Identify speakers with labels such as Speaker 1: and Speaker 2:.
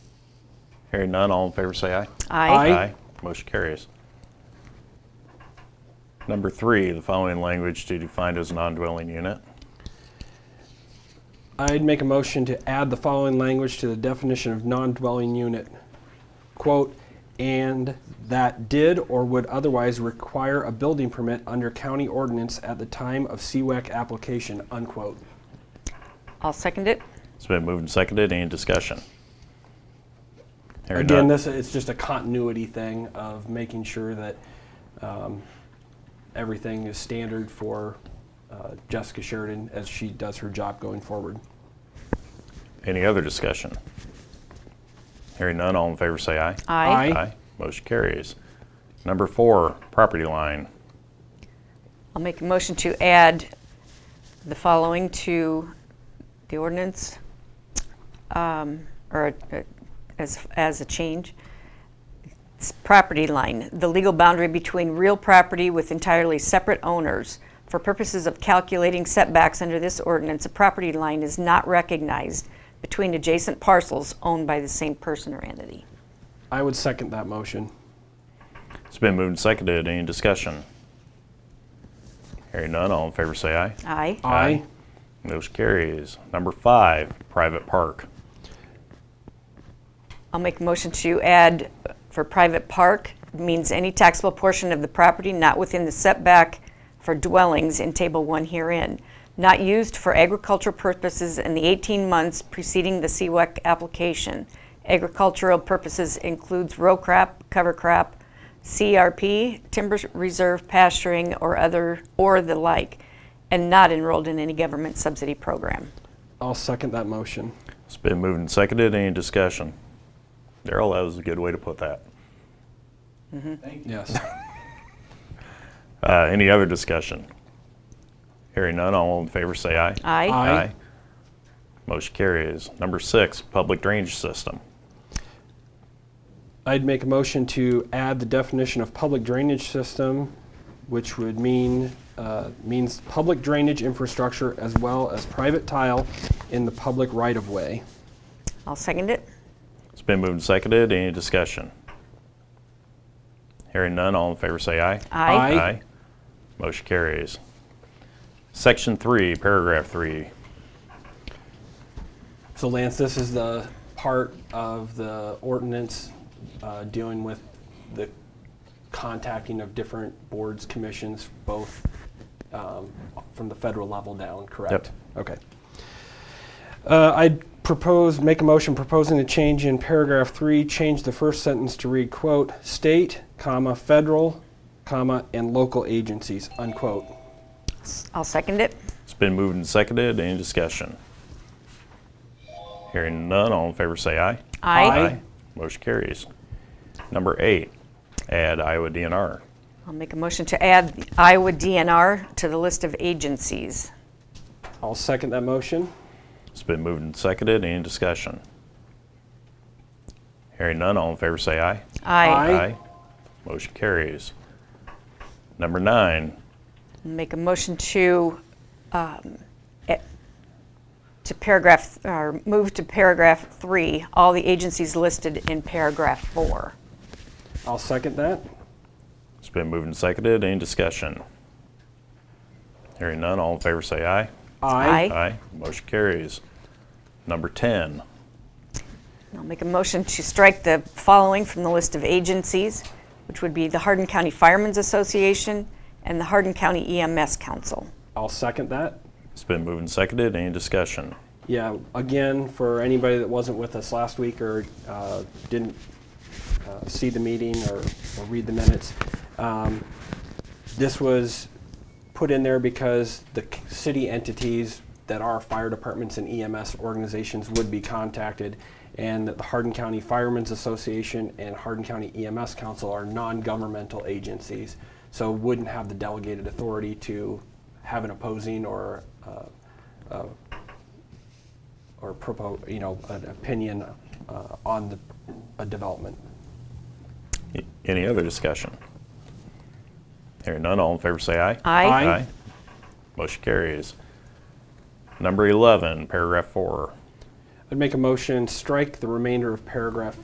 Speaker 1: Hearing none, all in favor say aye.
Speaker 2: Aye.
Speaker 3: Aye.
Speaker 1: Motion carries. Number three, the following language to be defined as a non-dwelling unit.
Speaker 3: I'd make a motion to add the following language to the definition of non-dwelling unit. Quote, "And that did or would otherwise require a building permit under county ordinance at the time of CWAC application," unquote.
Speaker 2: I'll second it.
Speaker 1: It's been moved and seconded. Any discussion? Hearing
Speaker 3: Again,
Speaker 1: none.
Speaker 3: this, it's just a continuity thing of making sure that um, everything is standard for uh, Jessica Sheridan as she does her job going forward.
Speaker 1: Any other discussion? Hearing none, all in favor say aye.
Speaker 2: Aye.
Speaker 3: Aye.
Speaker 1: Motion carries. Number four, property line.
Speaker 2: I'll make a motion to add the following to the ordinance, um, or uh, as, as a change. It's Property line, the legal boundary between real property with entirely separate owners. For purposes of calculating setbacks under this ordinance, a property line is not recognized between adjacent parcels owned by the same person or entity.
Speaker 3: I would second that motion.
Speaker 1: It's been moved and seconded. Any discussion? Hearing none, all in favor say aye.
Speaker 2: Aye.
Speaker 3: Aye.
Speaker 1: Motion carries. Number five, private park.
Speaker 2: I'll make a motion to add for private park means any taxable portion of the property not within the setback for dwellings in Table 1 herein, not used for agricultural purposes in the 18 months preceding the CWEC application. Agricultural purposes includes row crop, cover crop, CRP, timber reserve pasturing, or other, or the like, and not enrolled in any government subsidy program.
Speaker 3: I'll second that motion.
Speaker 1: It's been moved and seconded. Any discussion? Daryl, that was a good way to put that.
Speaker 3: Yes.
Speaker 1: Uh, any other discussion? Hearing none, all in favor say aye.
Speaker 2: Aye.
Speaker 3: Aye.
Speaker 1: Motion carries. Number six, public drainage system.
Speaker 3: I'd make a motion to add the definition of public drainage system, which would mean, uh, means public drainage infrastructure as well as private tile in the public right-of-way.
Speaker 2: I'll second it.
Speaker 1: It's been moved and seconded. Any discussion? Hearing none, all in favor say aye.
Speaker 3: Aye.
Speaker 1: Motion carries. Section three, paragraph three.
Speaker 3: So Lance, this is the part of the ordinance uh, dealing with the contacting of different boards, commissions, both um, from the federal level down, correct? Okay. Uh, I'd propose, make a motion proposing a change in paragraph three, change the first sentence to read, quote, "state, comma, federal, comma, and local agencies," unquote.
Speaker 2: S- I'll second it.
Speaker 1: It's been moved and seconded. Any discussion? Hearing none, all in favor say aye.
Speaker 3: Aye.
Speaker 1: Motion carries. Number eight, add Iowa DNR.
Speaker 2: I'll make a motion to add the Iowa DNR to the list of agencies.
Speaker 3: I'll second that motion.
Speaker 1: It's been moved and seconded. Any discussion? Hearing none, all in favor say aye.
Speaker 2: I
Speaker 3: Aye.
Speaker 1: Motion carries. Number nine,
Speaker 2: make a motion to, um, e- to paragraph, or move to paragraph three, all the agencies listed in paragraph four.
Speaker 3: I'll second that.
Speaker 1: it's been moved and seconded. Any discussion? Hearing none, all in favor say aye.
Speaker 2: Aye.
Speaker 1: Aye. Motion carries. Number 10,
Speaker 2: I'll make a motion to strike the following from the list of agencies, which would be the Hardin County Firemen's Association and the Hardin County EMS Council.
Speaker 3: I'll second that.
Speaker 1: it's been moved and seconded. Any discussion?
Speaker 3: Yeah, again, for anybody that wasn't with us last week or uh, didn't uh, see the meeting or or read the minutes, um, this was put in there because the c- city entities that are fire departments and EMS organizations would be contacted, and that the Hardin County Firemen's Association and Hardin County EMS Council are non-governmental agencies, so wouldn't have the delegated authority to have an opposing or uh, or propose, you know, an opinion uh, on the, a development.
Speaker 1: Y- Any other discussion? Hearing none, all in favor say aye.
Speaker 2: Aye.
Speaker 3: Aye.
Speaker 1: Motion carries. Number 11, paragraph 4.
Speaker 3: I'd make a motion, strike the remainder of paragraph